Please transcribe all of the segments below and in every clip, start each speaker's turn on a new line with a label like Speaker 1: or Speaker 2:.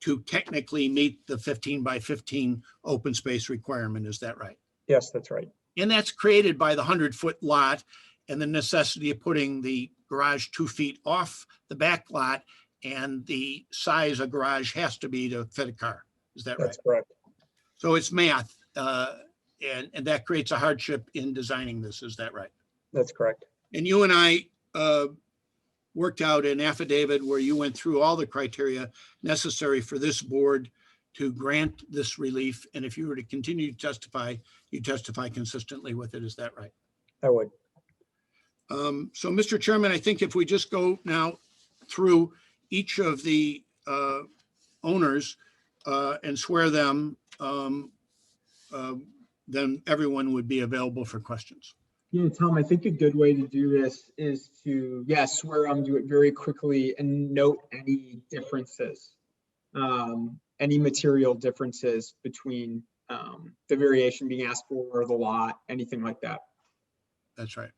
Speaker 1: to technically meet the 15 by 15 open space requirement. Is that right?
Speaker 2: Yes, that's right.
Speaker 1: And that's created by the 100-foot lot and the necessity of putting the garage two feet off the back lot and the size a garage has to be to fit a car. Is that right?
Speaker 2: That's correct.
Speaker 1: So it's math, uh, and, and that creates a hardship in designing this. Is that right?
Speaker 2: That's correct.
Speaker 1: And you and I uh, worked out an affidavit where you went through all the criteria necessary for this board to grant this relief. And if you were to continue to testify, you testify consistently with it. Is that right?
Speaker 2: I would.
Speaker 1: Um, So, Mr. Chairman, I think if we just go now through each of the uh, owners uh, and swear them, um, uh, then everyone would be available for questions.
Speaker 3: Yeah, Tom, I think a good way to do this is to, yeah, swear um, do it very quickly and note any differences. Um, any material differences between, um, the variation being asked for or the lot, anything like that.
Speaker 1: That's right.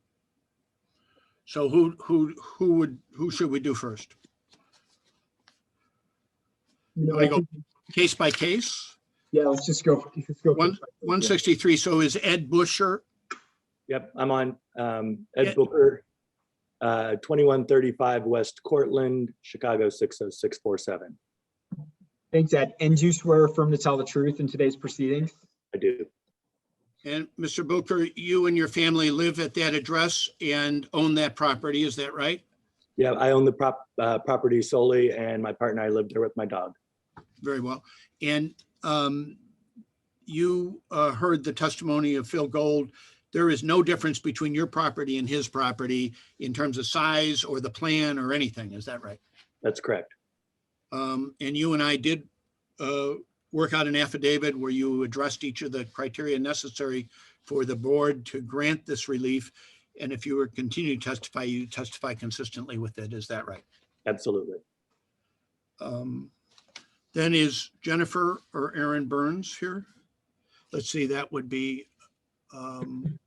Speaker 1: So who, who, who would, who should we do first?
Speaker 3: You know,
Speaker 1: Wanna
Speaker 3: I
Speaker 1: go-
Speaker 3: think-
Speaker 1: Case by case?
Speaker 3: Yeah, let's just go, let's go. for
Speaker 1: One-
Speaker 3: it.
Speaker 1: 163, so is Ed Busher,
Speaker 4: Yep, I'm on um,
Speaker 1: Yeah.
Speaker 4: Ed Booker, uh, 2135 West Cortland, Chicago 60647.
Speaker 3: Thanks, Ed. And do you swear affirm to tell the truth in today's proceedings?
Speaker 4: I do.
Speaker 1: and Mr. Booker, you and your family live at that address and own that property, is that right?
Speaker 4: Yeah, I own the prop, uh, property solely and my partner, and I live there with my dog.
Speaker 1: Very well. And um, you uh, heard the testimony of Phil Gold. There is no difference between your property and his property in terms of size or the plan or anything, is that right?
Speaker 4: That's correct.
Speaker 1: Um, and you and I did, uh, work out an affidavit where you addressed each of the criteria necessary for the board to grant this relief. And if you were continue to testify, you testify consistently with it. Is that right?
Speaker 4: Absolutely.
Speaker 1: Um, then is Jennifer or Aaron Burns here? Let's see, that would be, um,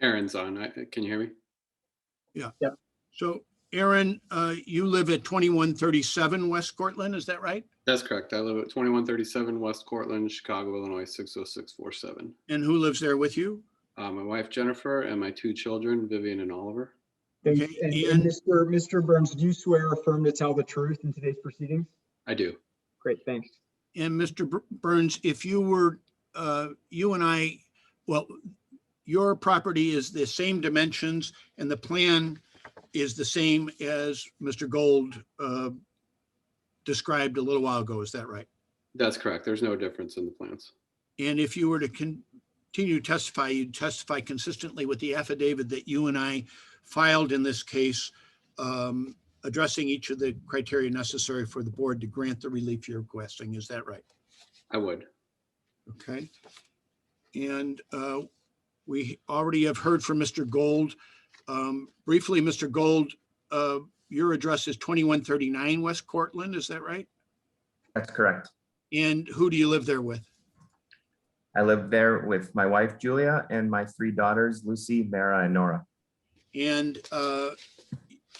Speaker 5: Aaron's on. I- Can you hear me?
Speaker 1: so Aaron, uh, you live at twenty-one thirty-seven West Cortland, is that right?
Speaker 5: That's correct. I live at 2137 West Cortland, Chicago, Illinois, 60647.
Speaker 1: And who lives there with you?
Speaker 5: Uh, My wife Jennifer and my two children, Vivian and Oliver.
Speaker 3: Thanks.
Speaker 1: Okay,
Speaker 3: And
Speaker 1: Ian?
Speaker 3: and Mr. Mr. Burns, do you swear affirm to tell the truth in today's proceedings?
Speaker 5: I do.
Speaker 3: Great, thanks.
Speaker 1: And Mr. Bur- Burns, if you were, uh, you and I, well, your property is the same dimensions and the plan is the same as Mr. Gold uh, described a little while ago, is that right?
Speaker 5: That's correct. There's no difference in the plans.
Speaker 1: And if you were to con- continue to testify, you'd testify consistently with the affidavit that you and I filed in this case, um, addressing each of the criteria necessary for the board to grant the relief you're requesting, is that right?
Speaker 5: I would.
Speaker 1: Okay. And uh, we already have heard from Mr. Gold. Um, Briefly, Mr. Gold, uh, your address is 2139 West Cortland, is that right?
Speaker 6: That's correct.
Speaker 1: And who do you live there with?
Speaker 6: I live there with my wife, Julia, and my three daughters, Lucy, Mara, and Nora.
Speaker 1: And uh,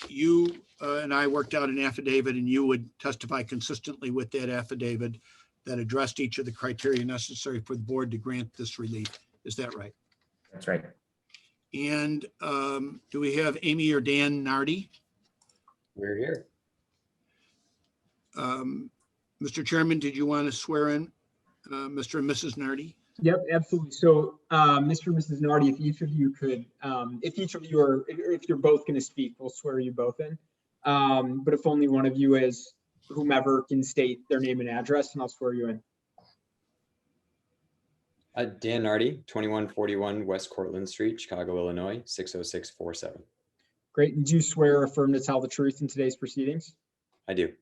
Speaker 1: you uh, and I worked out an affidavit and you would testify consistently with that affidavit that addressed each of the criteria necessary for the board to grant this relief. Is that right?
Speaker 6: That's right.
Speaker 1: And um, do we have Amy or Dan Nardi?
Speaker 4: We're here.
Speaker 1: Um, Mr. Chairman, did you want to swear in uh, Mr. and Mrs. Nardi?
Speaker 3: Yep, absolutely. So, uh, Mr. and Mrs. Nardi, if each of you could, um, if each of you are, if- if you're both going to speak, we'll swear you both in. Um, But if only one of you is, whomever can state their name and address, and I'll swear you in.
Speaker 7: Uh, Dan Nardi, 2141 West Cortland Street, Chicago, Illinois, 60647.
Speaker 3: Great. And do you swear or affirm to tell the truth in today's proceedings?
Speaker 7: I do.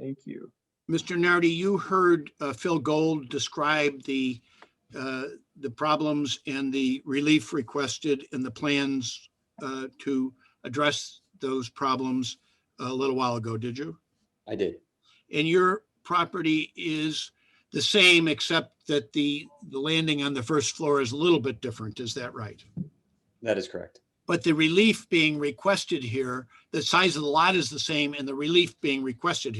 Speaker 3: Thank you.
Speaker 1: Mr. Nardi, you heard uh, Phil Gold describe the, uh, the problems and the relief requested and the plans uh, to address those problems a little while ago, did you?
Speaker 7: I did.
Speaker 1: And your property is the same, except that the, the landing on the first floor is a little bit different. Is that right?
Speaker 7: That is correct.
Speaker 1: But the relief being requested here, the size of the lot is the same and the relief being requested